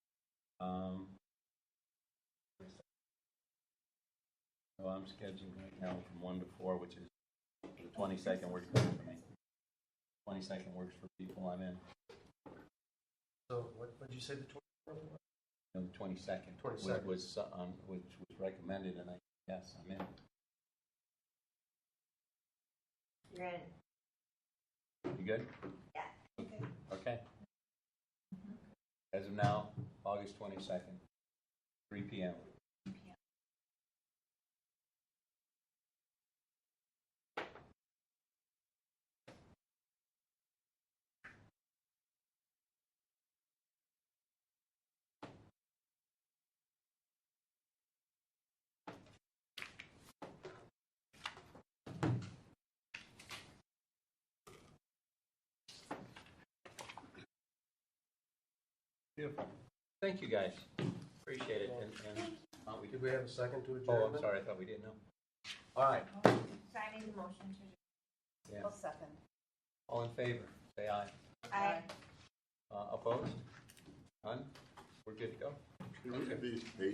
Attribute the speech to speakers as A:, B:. A: Um, So I'm scheduled right now from 1 to 4, which is the 22nd works good for me. 22nd works for people I'm in.
B: So what, what'd you say, the 24th?
A: No, the 22nd.
B: 22nd.
A: Which was, um, which was recommended, and I, yes, I'm in.
C: You're in.
A: You good?
C: Yeah.
A: Okay. As of now, August 22nd, 3 PM. Beautiful. Thank you, guys. Appreciate it. And- and- uh, we
B: Did
A: did-
B: we have a second to adjourn?
A: Oh, I'm sorry, I thought we didn't know. All right,
C: So I need a motion to.
A: Yeah.
D: I'll second.
A: all in favor, say aye.
C: I,
A: Uh, Opposed? None? We're good to go.
E: It would be eight